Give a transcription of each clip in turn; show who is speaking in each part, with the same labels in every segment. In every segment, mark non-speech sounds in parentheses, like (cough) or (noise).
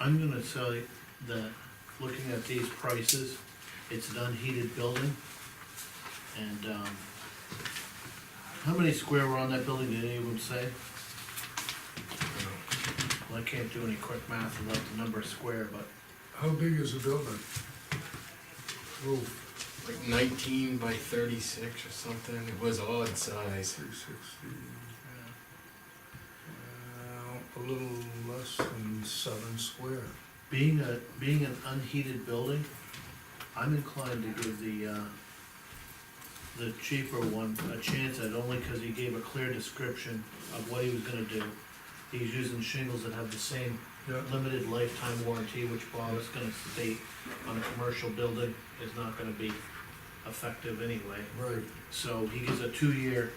Speaker 1: I'm gonna tell you that, looking at these prices, it's an unheated building. And, um, how many square were on that building, did anyone say? Well, I can't do any quick math without the number of square, but
Speaker 2: How big is the building? Roof,
Speaker 3: like nineteen by thirty-six or something, it was odd size.
Speaker 2: three sixty, uh, a little less than seven square.
Speaker 1: being a, being an unheated building, I'm inclined to give the, uh, the cheaper one a chance at it, only cause he gave a clear description of what he was gonna do. He's using shingles that have the same
Speaker 2: Yeah,
Speaker 1: limited lifetime warranty, which Bob is gonna state on a commercial building is not gonna be effective anyway.
Speaker 2: right,
Speaker 1: So he gives a two-year,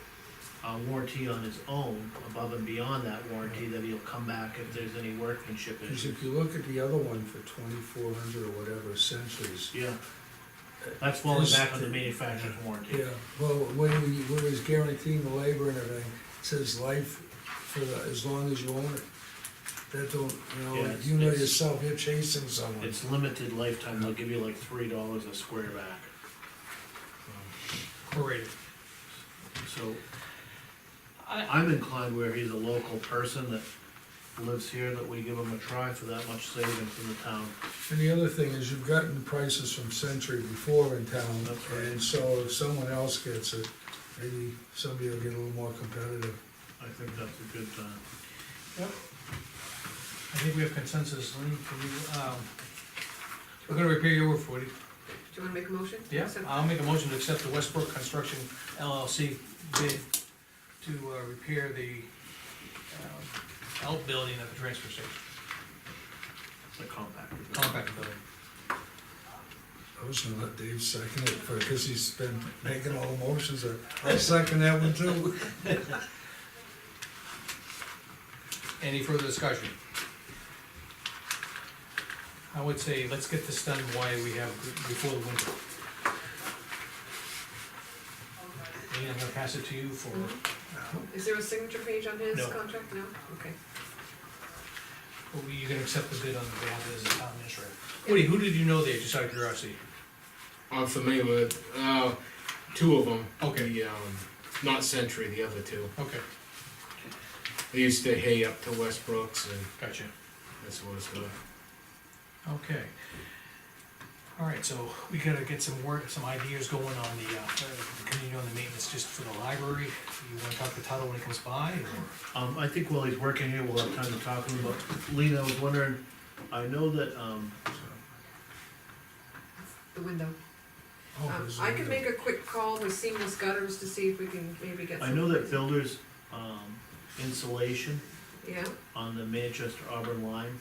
Speaker 1: uh, warranty on his own, above and beyond that warranty, that he'll come back if there's any workmanship
Speaker 2: cause
Speaker 1: issues.
Speaker 2: if you look at the other one for twenty-four hundred or whatever centuries,
Speaker 1: Yeah, that's falling
Speaker 2: This-
Speaker 1: back on the manufacturer's warranty.
Speaker 2: Yeah, well, when we, when he's guaranteeing the labor and everything, it says life for the, as long as you own it. That don't, you know,
Speaker 1: Yeah,
Speaker 2: like
Speaker 1: it's-
Speaker 2: you know
Speaker 1: it's-
Speaker 2: yourself, you're chasing someone.
Speaker 1: It's limited lifetime, they'll give you like three dollars a square back,
Speaker 4: Great.
Speaker 1: so
Speaker 4: I,
Speaker 1: I'm inclined where he's a local person that lives here, that we give him a try for that much savings in the town.
Speaker 2: And the other thing is you've gotten prices from Century before in town,
Speaker 1: That's right.
Speaker 2: and so if someone else gets it, maybe somebody will get a little more competitive.
Speaker 1: I think that's a good uh, time.
Speaker 4: I think we have consensus, Lean, for you, um, we're gonna repair your roof, Woody.
Speaker 5: Do you wanna make a motion?
Speaker 4: Yeah,
Speaker 5: So-
Speaker 4: I'll make a motion to accept the Westbrook Construction LLC bid to, uh, repair the, um, outbuilding at the transfer station,
Speaker 1: The compact.
Speaker 4: compact building.
Speaker 2: I was gonna let Dave second it, because he's been making all the motions, I'll second that one
Speaker 5: (laughs)
Speaker 2: too.
Speaker 4: Any further discussion? I would say, let's get this done while we have, before the winter. Lean, I'm gonna pass it to you for,
Speaker 5: Is there a signature page on his
Speaker 4: No.
Speaker 5: contract? No? Okay.
Speaker 4: Well, oh, you can accept the bid on the behalf of the town administrator. Woody, who did you know there, just out of curiosity?
Speaker 3: I'm familiar with, uh, two of them.
Speaker 4: Okay.
Speaker 3: The, um, not Century, the other two.
Speaker 4: Okay,
Speaker 3: They used to hay up to Westbrook's and
Speaker 4: gotcha.
Speaker 3: that sort of stuff.
Speaker 4: Okay. All right, so we gotta get some work, some ideas going on the, uh, continue on the maintenance just for the library. You wanna talk to Tyler when he comes by, or?
Speaker 1: Um, I think while he's working here, we'll have time to talk to him, but Lena, I was wondering, I know that, um,
Speaker 5: The window.
Speaker 2: Oh,
Speaker 5: Um,
Speaker 2: there's
Speaker 5: I
Speaker 2: a-
Speaker 5: can make a quick call with seamless gutters to see if we can maybe get some.
Speaker 1: I know that builders, um, insulation
Speaker 5: Yeah,
Speaker 1: on the Manchester Auburn line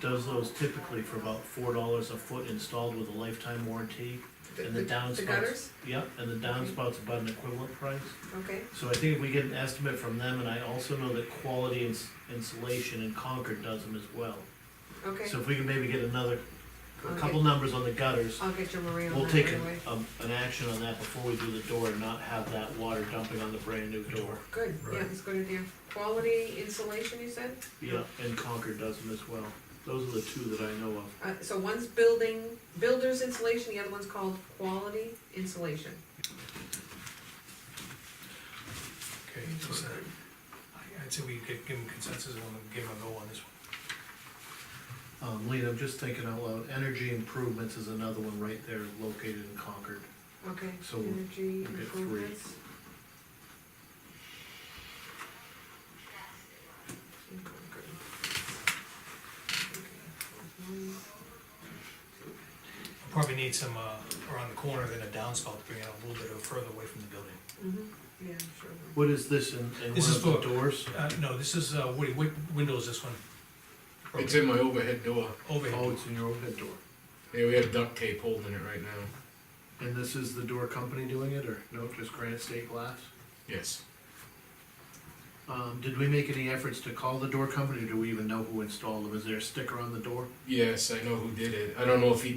Speaker 1: does those typically for about four dollars a foot installed with a lifetime warranty,
Speaker 5: the,
Speaker 1: and the
Speaker 5: the
Speaker 1: downspouts.
Speaker 5: the gutters,
Speaker 1: Yep, and the downspouts about an equivalent price.
Speaker 5: okay,
Speaker 1: So I think if we get an estimate from them, and I also know that quality Ins- insulation in Concord does them as well.
Speaker 5: okay.
Speaker 1: So if we can maybe get another, a
Speaker 5: Okay.
Speaker 1: couple numbers on the gutters,
Speaker 5: I'll get your Maria on
Speaker 1: we'll
Speaker 5: that
Speaker 1: take
Speaker 5: right
Speaker 1: an,
Speaker 5: away.
Speaker 1: um, an action on that before we do the door and not have that water dumping on the brand new door.
Speaker 5: Good, yeah,
Speaker 2: Right.
Speaker 5: it's good idea. Quality insulation, you said?
Speaker 1: Yeah, and Concord does them as well. Those are the two that I know of.
Speaker 5: Uh, so one's building, builder's insulation, the other one's called quality insulation.
Speaker 4: Okay, so, I- I'd say we could give him consensus and we'll give him a go on this one.
Speaker 1: Um, Lean, I'm just thinking out loud, energy improvements is another one right there located in Concord.
Speaker 5: Okay,
Speaker 1: So we'll
Speaker 5: energy
Speaker 1: get three.
Speaker 5: improvements. In Concord. Okay, one.
Speaker 4: We'll Probably need some, uh, around the corner, then a downspout to bring it a little bit further away from the building.
Speaker 5: Mm-hmm, yeah, sure.
Speaker 1: What is this in, in
Speaker 4: This
Speaker 1: one
Speaker 4: is
Speaker 1: of the
Speaker 4: for-
Speaker 1: doors?
Speaker 4: Uh, no, this is, uh, Woody, what window is this one?
Speaker 3: It's in my overhead door.
Speaker 4: Overhead.
Speaker 1: Oh, it's in your overhead door.
Speaker 3: Yeah, we have duct tape holding it right now.
Speaker 1: And this is the door company doing it, or no, just Granite State Glass?
Speaker 3: Yes.
Speaker 1: Um, did we make any efforts to call the door company, or do we even know who installed them? Is there a sticker on the door?
Speaker 3: Yes, I know who did it. I don't know if he